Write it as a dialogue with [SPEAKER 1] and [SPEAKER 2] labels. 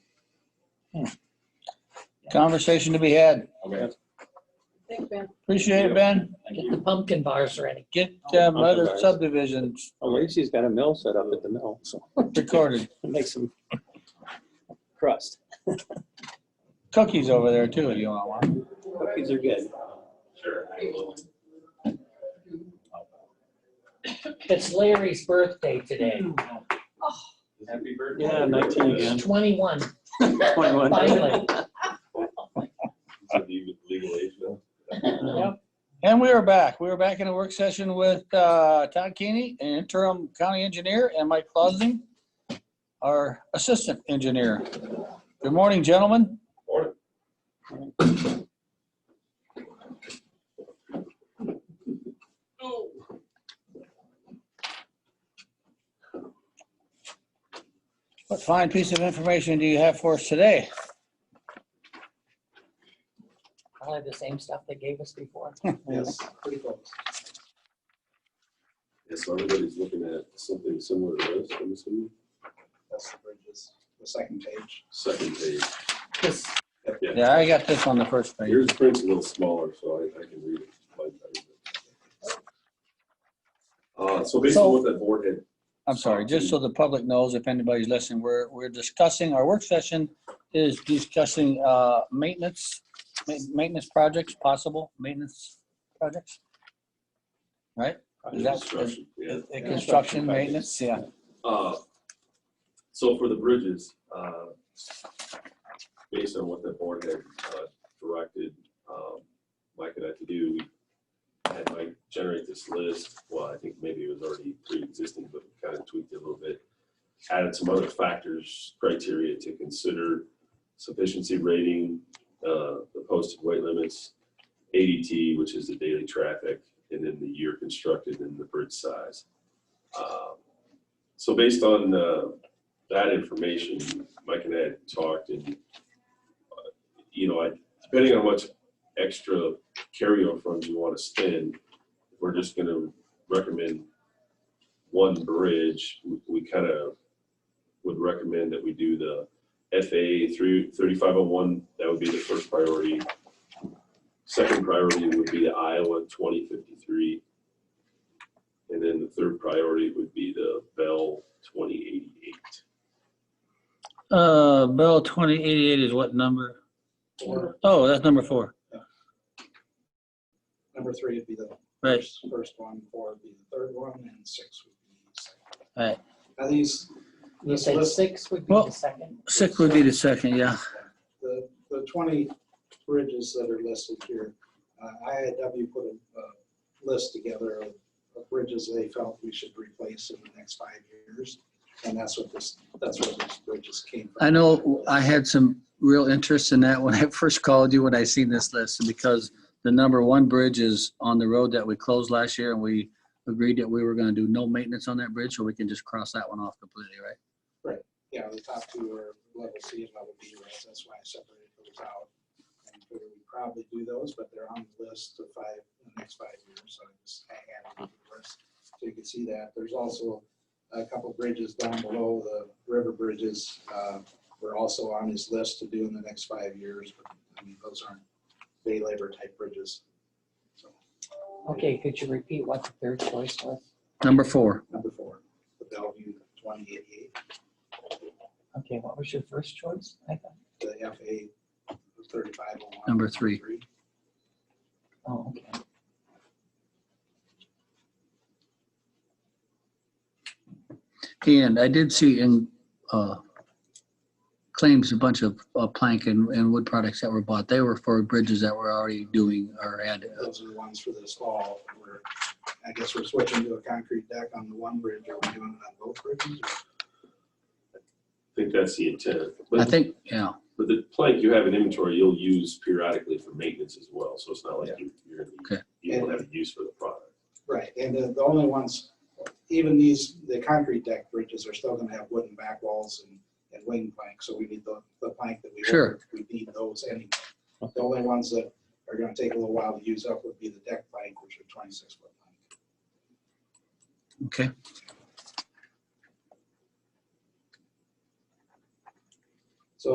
[SPEAKER 1] Conversation to be had.
[SPEAKER 2] Okay.
[SPEAKER 3] Thanks, Ben.
[SPEAKER 1] Appreciate it, Ben.
[SPEAKER 2] Thank
[SPEAKER 3] Get
[SPEAKER 2] you.
[SPEAKER 3] the pumpkin bars ready.
[SPEAKER 1] Get um, other subdivisions
[SPEAKER 4] Lacey's got a mill set up at the mill, so
[SPEAKER 1] recorded.
[SPEAKER 4] make some crust.
[SPEAKER 1] Cookies over there too, if you want one.
[SPEAKER 4] Cookies are good.
[SPEAKER 2] Sure. I will.
[SPEAKER 3] It's Larry's birthday today.
[SPEAKER 2] Happy birthday.
[SPEAKER 4] Yeah, 19 again.
[SPEAKER 3] He's 21,
[SPEAKER 4] 21.
[SPEAKER 3] finally.
[SPEAKER 2] So do you legal age though?
[SPEAKER 3] Yep.
[SPEAKER 1] And we are back. We are back in a work session with uh, Todd Keeney, an interim county engineer, and Mike Clausen, our assistant engineer. Good morning, gentlemen.
[SPEAKER 2] Or
[SPEAKER 1] What fine piece of information do you have for us today?
[SPEAKER 3] I'll have the same stuff they gave us before.
[SPEAKER 4] Yes.
[SPEAKER 3] Pretty close.
[SPEAKER 5] Yeah, so everybody's looking at something similar to this, I'm assuming,
[SPEAKER 6] That's the bridges, the second page.
[SPEAKER 5] second page.
[SPEAKER 3] This,
[SPEAKER 5] Yeah,
[SPEAKER 1] Yeah, I got this on the first page.
[SPEAKER 5] yours print's a little smaller, so I, I can read it. slightly better. Uh, so basically
[SPEAKER 1] So-
[SPEAKER 5] what that board had,
[SPEAKER 1] I'm sorry, just so the public knows, if anybody's listening, we're, we're discussing, our work session is discussing uh, maintenance, ma- maintenance projects, possible maintenance projects,
[SPEAKER 5] under
[SPEAKER 1] That's-
[SPEAKER 5] construction, uh, yeah.
[SPEAKER 1] Uh, construction, maintenance, yeah.
[SPEAKER 5] Uh, So for the bridges, uh, based on what the board had uh, directed, um, Mike and I to do, I had Mike generate this list. Well, I think maybe it was already pre-existing, but we kind of tweaked it a little bit. Added some other factors, criteria to consider, sufficiency rating, uh, the posted weight limits, ADT, which is the daily traffic, and then the year constructed and the bridge size. Um, so based on uh, that information, Mike and I had talked and, uh, you know, I- depending on much extra carryover funds you want to spend, we're just going to recommend one bridge. We- We kind of would recommend that we do the FA through 3501. That would be the first priority. Second priority would be the Iowa 2053. And then the third priority would be the Bell twenty eighty-eight.
[SPEAKER 1] Uh, Bell twenty eighty-eight is what number?
[SPEAKER 6] Or
[SPEAKER 1] Oh, that's number four,
[SPEAKER 6] number three would be the
[SPEAKER 1] right.
[SPEAKER 6] first first one, four would be the third one, and six would be the second.
[SPEAKER 1] Right.
[SPEAKER 6] Now these,
[SPEAKER 3] you said six would be
[SPEAKER 1] Well-
[SPEAKER 3] the second.
[SPEAKER 1] Six would be the second, yeah.
[SPEAKER 6] the, the twenty bridges that are listed here, uh, IIW put a, a list together of, of bridges they felt we should replace in the next five years. And that's what this, that's where these bridges came from.
[SPEAKER 1] I know I had some real interest in that when I first called you when I seen this list because the number one bridge is on the road that we closed last year and we agreed that we were gonna do no maintenance on that bridge, so we can just cross that one off completely, right?
[SPEAKER 6] Yeah, the top two are level C and level B, right? That's why I separated those out. And figured we'd probably do those, but they're on the list of five, the next five years, so I just I added to the list. So you can see that. There's also a couple bridges down below, the river bridges, uh, were also on his list to do in the next five years, but I mean, those aren't day labor type bridges. So,
[SPEAKER 3] Okay, could you repeat what the third choice was?
[SPEAKER 1] Number four,
[SPEAKER 6] number four, the Bellevue twenty eighty-eight,
[SPEAKER 3] Okay, what was your first choice? I thought,
[SPEAKER 6] the FA thirty-five oh one.
[SPEAKER 1] Number three.
[SPEAKER 3] oh, okay.
[SPEAKER 1] and I did see in uh, claims a bunch of uh, plank and, and wood products that were bought. They were for bridges that were already doing or had. uh,
[SPEAKER 6] Those are the ones for this fall. We're, I guess we're switching to a concrete deck on the one bridge. Are we doing it on both bridges?
[SPEAKER 5] I think that's the intent.
[SPEAKER 1] I
[SPEAKER 5] But,
[SPEAKER 1] think, yeah.
[SPEAKER 5] but the plank you have in inventory, you'll use periodically for maintenance as well. So it's not like you, you're,
[SPEAKER 1] Okay.
[SPEAKER 5] gonna you won't have use for the product.
[SPEAKER 6] Right, and the, the only ones, even these, the concrete deck bridges are still gonna have wooden back walls and, and wing plank, so we need the, the plank that we.
[SPEAKER 1] Sure.
[SPEAKER 6] ordered. We need those anyway. The only ones that are gonna take a little while to use up would be the deck plank, which are twenty-six foot plank.
[SPEAKER 1] Okay.